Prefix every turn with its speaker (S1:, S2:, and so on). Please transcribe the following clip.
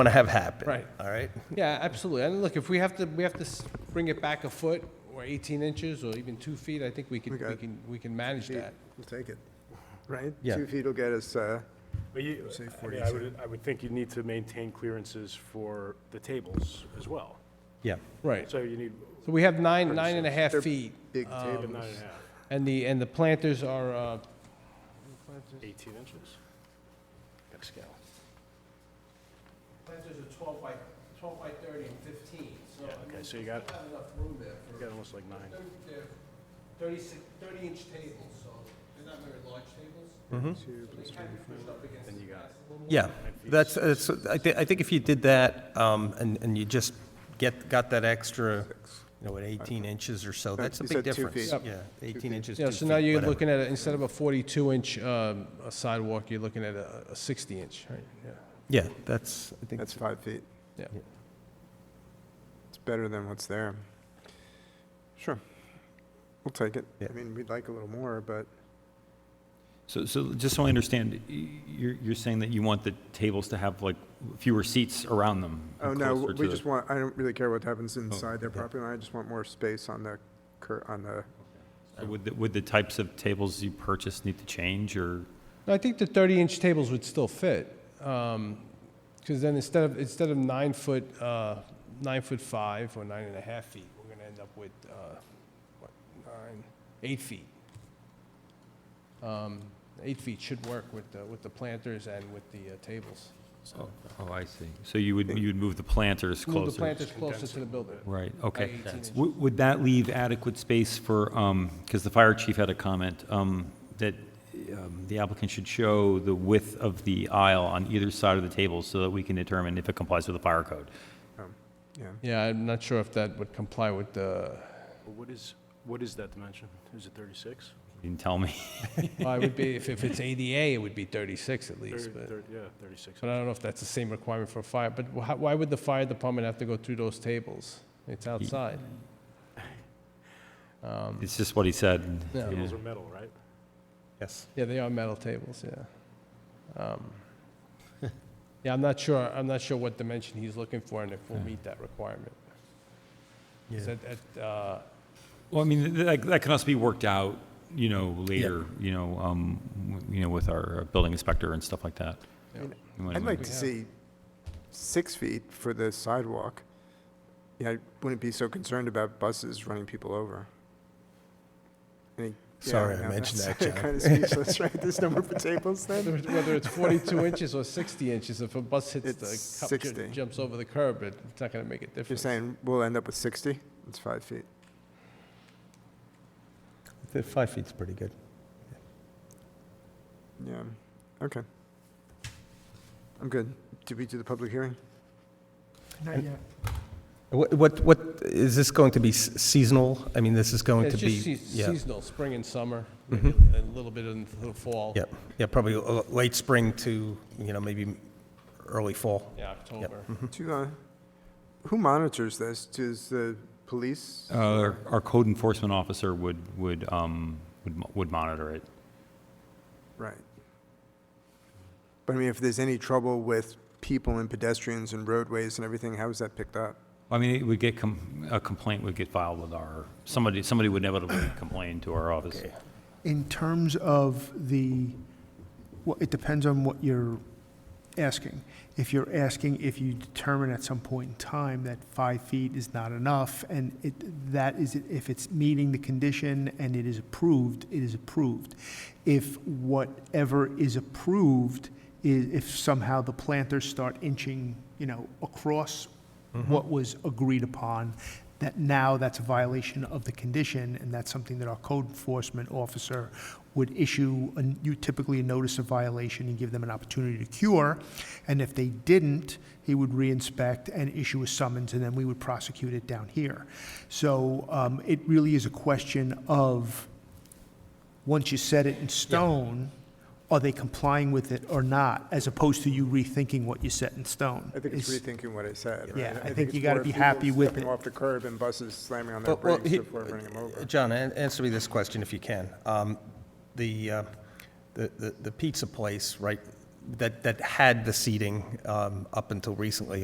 S1: want to have happen.
S2: Right.
S1: All right?
S2: Yeah, absolutely. And look, if we have to, we have to s- bring it back a foot or 18 inches or even two feet, I think we could, we
S3: Okay.
S2: can, we can manage
S3: Feet,
S2: that.
S3: We'll take it, right?
S1: Yeah.
S3: Two feet will get us, uh,
S4: But you,
S3: Say
S4: I mean, I would, I would think you need to maintain clearances for the tables as well.
S1: Yeah.
S2: Right.
S4: So you need
S2: So we have nine, nine and a half
S3: They're
S2: feet,
S3: big
S4: nine and
S3: tables.
S4: a half,
S2: and the, and the planters are, uh,
S4: 18 inches. Got a scale.
S2: planters are 12 by, 12 by 30 and 15, so.
S4: Yeah,
S2: I
S4: okay,
S2: mean,
S4: so you got-
S2: Not enough room there
S4: You
S2: for,
S4: Got almost like nine.
S2: they're- they're 36, 30-inch tables, so they're not very large tables.
S3: Two plus
S2: They can be pushed up against
S4: Then you
S2: the
S4: got-
S2: glass a little
S1: Yeah, that's, that's, I thi- I think if you did that, um, and, and you just get, got that extra, you know, at eighteen inches or so, that's a
S3: You
S1: big
S3: said two
S1: difference.
S3: feet.
S1: Yeah, eighteen inches, two
S2: Yeah, so now
S1: feet,
S2: you're
S1: whatever.
S2: looking at, a- instead of a 42-inch sidewalk, you're looking at a 60-inch, right? Yeah.
S1: Yeah, that's, I think,
S3: That's five feet.
S2: Yeah.
S1: Yeah.
S3: It's better than what's there. Sure. We'll take it.
S1: Yeah.
S3: I mean, we'd like a little more, but
S5: So, so just so I understand, y- you're, you're saying that you want the tables to have like fewer seats around them?
S3: Oh,
S5: and
S3: no,
S5: closer to
S3: we
S5: the-
S3: just want, I don't really care what happens inside their property line, I just want more space on the, cur on the,
S5: So Would, the- would the types of tables you purchase need to change or?
S2: No, I think the 30-inch tables would still fit, because then instead of, instead of nine foot, uh, nine foot five or nine and a half feet, we're going to end up with, uh, what, nine, eight feet. Um, Eight feet should work with, the with the planters and with the uh, tables.
S5: Oh, I see. So you would, you would move the planters closer?
S2: Move the planters closer to the building.
S5: Right, okay.
S2: 18 inches.
S5: Would, would that leave adequate space for, um, because the fire chief had a comment, um, that, um, the applicant should show the width of the aisle on either side of the table so that we can determine if it complies with the fire code?
S3: yeah.
S2: Yeah, I'm not sure if that would comply with the,
S4: Well, What is, what is that dimension? Is it 36?
S5: You didn't tell me.
S2: Well, it would be, if, if it's ADA, it would be 36 at
S4: Thirty-
S2: least, but,
S4: thirty- Yeah, 36.
S2: but I don't know if that's the same requirement for fire, but wh- how- why would the fire department have to go through those tables? It's outside.
S5: It's just what he said.
S2: Yeah.
S5: Yeah.
S4: Those are metal, right?
S1: yes.
S2: Yeah, they are metal tables, yeah. Um, Yeah, I'm not sure, I'm not sure what dimension he's looking for and if we'll meet that requirement. 'Cause
S1: Yeah.
S2: at- at, uh,
S5: Well, I mean, th- that, that can also be worked out, you know, later, you know, um, w- you know, with our uh, building inspector and stuff like that.
S2: Yeah.
S3: And
S5: You wanna-
S3: I'd like to
S2: have-
S3: see six feet for the sidewalk. Yeah, I wouldn't be so concerned about buses running people over. Any- yeah,
S1: Sorry, I
S3: no,
S1: mentioned
S3: that's
S1: that, John.
S3: Kind of speechless, right? There's no more for tables
S2: Whether
S3: then?
S2: it's- whether it's 42 inches or 60 inches, if a bus hits
S3: It's
S2: the, cup- ju-
S3: 60.
S2: jumps over the curb, it- it's not going to make a difference.
S3: You're saying we'll end up with 60? It's five feet.
S1: I think Five feet's pretty good.
S3: Yeah, okay. I'm good. Did we do the public hearing?
S1: What, what, what, is this going to be s- seasonal? I mean, this is going to
S2: It's
S1: be?
S2: just sea-
S1: yeah.
S2: seasonal, spring and summer, maybe a little bit in the fall.
S1: Yep, yeah, probably uh, late spring to, you know, maybe early fall.
S2: Yeah, October.
S1: Hmm.
S3: Do, uh, who monitors this? Does the police?
S5: Uh, our, our code enforcement officer would, would, um, would, mo- would monitor it.
S3: Right. But I mean, if there's any trouble with people and pedestrians and roadways and everything, how is that picked up?
S5: I mean, it would get, com- a complaint would get filed with our, somebody, somebody would inevitably complain to our office.
S1: Okay.
S6: In terms of the, well, it depends on what you're asking. If you're asking if you determine at some point in time that five feet is not enough, and it, that is, if it's meeting the condition and it is approved, it is approved. If whatever is approved, i- if somehow the planters start inching, you know, across
S3: Mm-hmm.
S6: what was agreed upon, that now that's a violation of the condition, and that's something that our code enforcement officer would issue, a- you typically a notice of violation and give them an opportunity to cure. And if they didn't, he would reinspect and issue a summons, and then we would prosecute it down here. So um, it really is a question of, once you set it in stone, are they complying with it or not, as opposed to you rethinking what you set in stone?
S3: I think it's
S6: Is-
S3: rethinking what I said, right?
S6: Yeah, I think
S3: it's
S6: you gotta
S3: more
S6: be
S3: people
S6: happy with
S3: Stepping
S6: it.
S3: off the curb and buses slamming on their
S1: Well, well,
S3: brakes
S1: he-
S3: before running them over.
S1: Uh, John, an- answer me this question if you can. Um, The, uh, the- the the pizza place right that, that had the seating um, up until recently